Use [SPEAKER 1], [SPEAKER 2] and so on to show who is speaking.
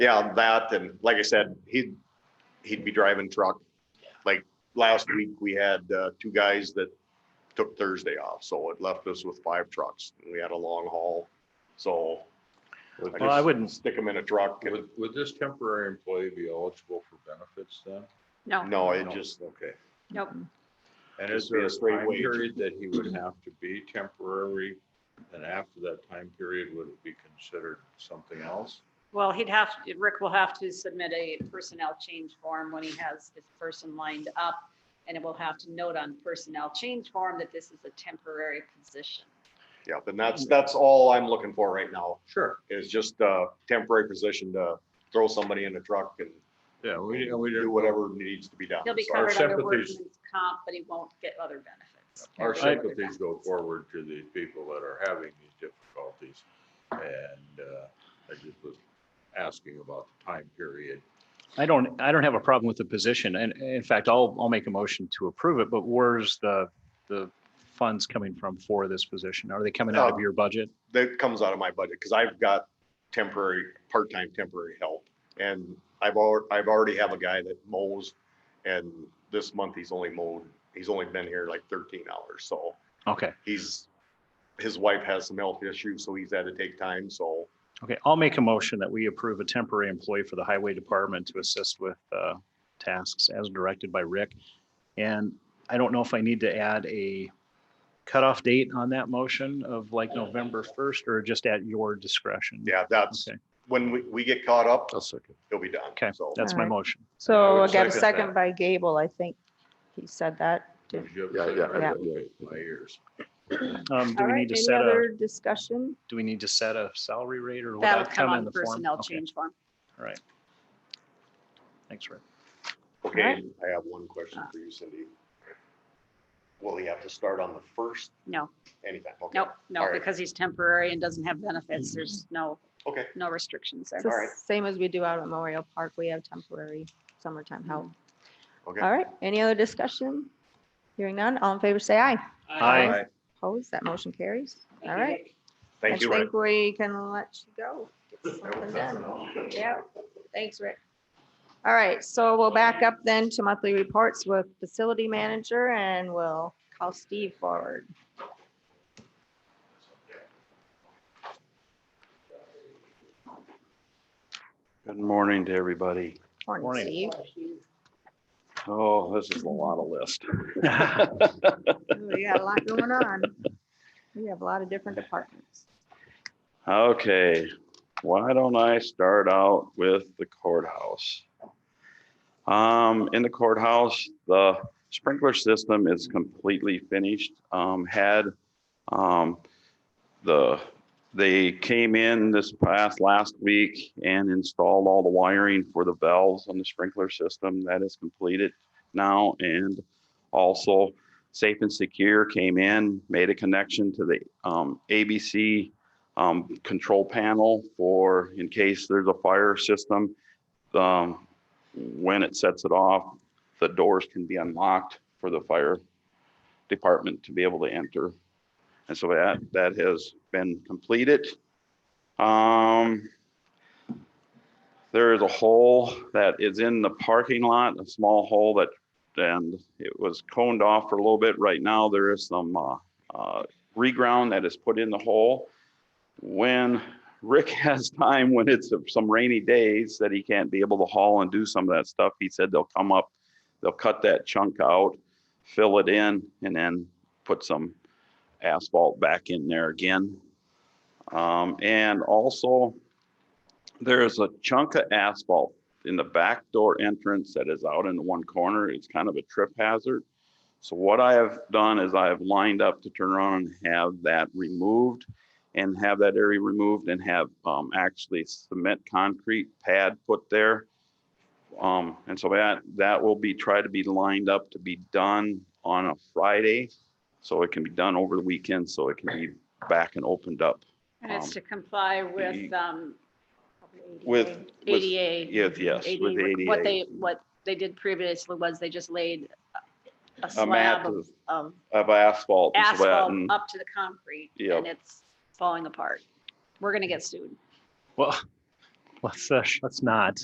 [SPEAKER 1] Yeah, that, and like I said, he'd, he'd be driving truck. Like last week, we had, uh, two guys that took Thursday off, so it left us with five trucks. We had a long haul, so.
[SPEAKER 2] Would
[SPEAKER 1] guess
[SPEAKER 2] this-
[SPEAKER 3] Well, I wouldn't,
[SPEAKER 1] Stick them in a truck and,
[SPEAKER 2] Would, would this temporary employee be eligible for benefits then?
[SPEAKER 4] No.
[SPEAKER 1] no, Oh, it just,
[SPEAKER 2] Okay.
[SPEAKER 4] Nope.
[SPEAKER 2] And
[SPEAKER 1] Just
[SPEAKER 2] is
[SPEAKER 1] be a
[SPEAKER 2] there a
[SPEAKER 1] straight
[SPEAKER 2] time
[SPEAKER 1] wage.
[SPEAKER 2] period that he would have to be temporary? And after that time period, would it be considered something else?
[SPEAKER 4] Well, he'd have, Rick will have to submit a personnel change form when he has this person lined up. And it will have to note on personnel change form that this is a temporary position.
[SPEAKER 1] yeah, then that's, that's all I'm looking for right now,
[SPEAKER 2] Sure.
[SPEAKER 1] is just a temporary position to throw somebody in a truck and
[SPEAKER 2] Yeah, we, we
[SPEAKER 1] do
[SPEAKER 2] didn't,
[SPEAKER 1] whatever needs to be done.
[SPEAKER 4] He'll be
[SPEAKER 1] So-
[SPEAKER 2] our
[SPEAKER 4] covered under
[SPEAKER 2] sympathies-
[SPEAKER 4] workman's comp, but he won't get other benefits.
[SPEAKER 2] our
[SPEAKER 4] Temporary
[SPEAKER 2] sympathies go
[SPEAKER 4] benefits.
[SPEAKER 2] forward to these people that are having these difficulties. And, uh, I just was asking about the time period.
[SPEAKER 3] I don't, I don't have a problem with the position. And and in fact, I'll, I'll make a motion to approve it, but where's the, the funds coming from for this position? Are they coming out of your budget?
[SPEAKER 1] that comes out of my budget because I've got temporary, part-time temporary help. And I've al- I've already have a guy that mows and this month he's only mowed, he's only been here like thirteen hours. So
[SPEAKER 3] Okay,
[SPEAKER 1] he's, his wife has some health issues, so he's had to take time. So
[SPEAKER 3] okay. I'll make a motion that we approve a temporary employee for the highway department to assist with uh, tasks as directed by Rick. And I don't know if I need to add a cutoff date on that motion of like November 1st or just at your discretion.
[SPEAKER 1] yeah, that's,
[SPEAKER 3] Okay,
[SPEAKER 1] when we, we get caught up,
[SPEAKER 2] second.
[SPEAKER 1] he'll be done.
[SPEAKER 3] Okay.
[SPEAKER 1] So
[SPEAKER 3] that's my
[SPEAKER 5] Alright.
[SPEAKER 3] motion.
[SPEAKER 5] So
[SPEAKER 2] would
[SPEAKER 5] I got a
[SPEAKER 2] second
[SPEAKER 5] second
[SPEAKER 2] that.
[SPEAKER 5] by Gable, I think he said that.
[SPEAKER 2] Yeah,
[SPEAKER 6] Yeah, yeah,
[SPEAKER 2] yeah.
[SPEAKER 6] yeah,
[SPEAKER 2] My ears.
[SPEAKER 3] Um, Do we
[SPEAKER 5] All right,
[SPEAKER 3] need to
[SPEAKER 5] any
[SPEAKER 3] set a,
[SPEAKER 5] other discussion?
[SPEAKER 3] do we need to set a salary rate or? will
[SPEAKER 4] That'll
[SPEAKER 3] that
[SPEAKER 4] come
[SPEAKER 3] in
[SPEAKER 4] on
[SPEAKER 3] the form?
[SPEAKER 4] personnel
[SPEAKER 3] Okay.
[SPEAKER 4] change form.
[SPEAKER 3] All right. Thanks, Rick.
[SPEAKER 1] Okay,
[SPEAKER 5] Alright.
[SPEAKER 1] I have one question for you, Cindy. Will he have to start on the first
[SPEAKER 4] No,
[SPEAKER 1] anytime? Okay.
[SPEAKER 4] no, no,
[SPEAKER 1] Alright.
[SPEAKER 4] because he's temporary and doesn't have benefits. There's no,
[SPEAKER 1] Okay,
[SPEAKER 4] no restrictions there.
[SPEAKER 5] It's the
[SPEAKER 1] All right.
[SPEAKER 5] Same as we do out at Memorial Park, we have temporary summertime help.
[SPEAKER 3] Mm-hmm.
[SPEAKER 1] okay.
[SPEAKER 5] All right, any other discussion? Hearing none, all in favor, say aye.
[SPEAKER 3] Aye.
[SPEAKER 2] Aye.
[SPEAKER 5] Opposed, that motion carries. All right. I
[SPEAKER 1] Thank you, Rick.
[SPEAKER 5] think we can let you go. Get something
[SPEAKER 1] That's
[SPEAKER 5] done.
[SPEAKER 1] enough.
[SPEAKER 5] Yeah, thanks, Rick. All right, so we'll back up then to monthly reports with facility manager and we'll call Steve forward.
[SPEAKER 6] Good morning to everybody.
[SPEAKER 3] Morning.
[SPEAKER 5] Morning, Steve.
[SPEAKER 6] Oh, this is a lot of list.
[SPEAKER 5] We got a lot going on. We have a lot of different departments.
[SPEAKER 6] Okay, why don't I start out with the courthouse? Um, in the courthouse, the sprinkler system is completely finished. Um, had, um, the, they came in this past last week and installed all the wiring for the valves on the sprinkler system. That is completed now and also Safe and Secure came in, made a connection to the, um, ABC um, control panel for in case there's a fire system. Um, when it sets it off, the doors can be unlocked for the fire department to be able to enter. And so that, that has been completed. Um, there is a hole that is in the parking lot, a small hole that, and it was coned off for a little bit. Right now, there is some, uh, uh, reground that is put in the hole when Rick has time, when it's some rainy days that he can't be able to haul and do some of that stuff, he said they'll come up, they'll cut that chunk out, fill it in, and then put some asphalt back in there again. Um, and also, there's a chunk of asphalt in the back door entrance that is out in the one corner. It's kind of a trip hazard. So what I have done is I have lined up to turn around and have that removed and have that area removed and have um, actually cement concrete pad put there. Um, And so that, that will be, try to be lined up to be done on a Friday. So it can be done over the weekend, so it can be back and opened up
[SPEAKER 4] And it's
[SPEAKER 6] Um,
[SPEAKER 4] to comply with,
[SPEAKER 6] the-
[SPEAKER 4] um,
[SPEAKER 6] with. with-
[SPEAKER 4] ADA.
[SPEAKER 6] Yes, yes, with
[SPEAKER 4] ADA, What they,
[SPEAKER 6] ADA.
[SPEAKER 4] what they did previously was they just laid a- a
[SPEAKER 6] A mat
[SPEAKER 4] slab of-
[SPEAKER 6] of
[SPEAKER 4] of
[SPEAKER 6] of uh, asphalt. and so that,
[SPEAKER 4] asphalt
[SPEAKER 6] and-
[SPEAKER 4] up to the concrete
[SPEAKER 6] Yep.
[SPEAKER 4] and it's falling apart. We're gonna get sued.
[SPEAKER 3] Well, Let's, uh, let's not.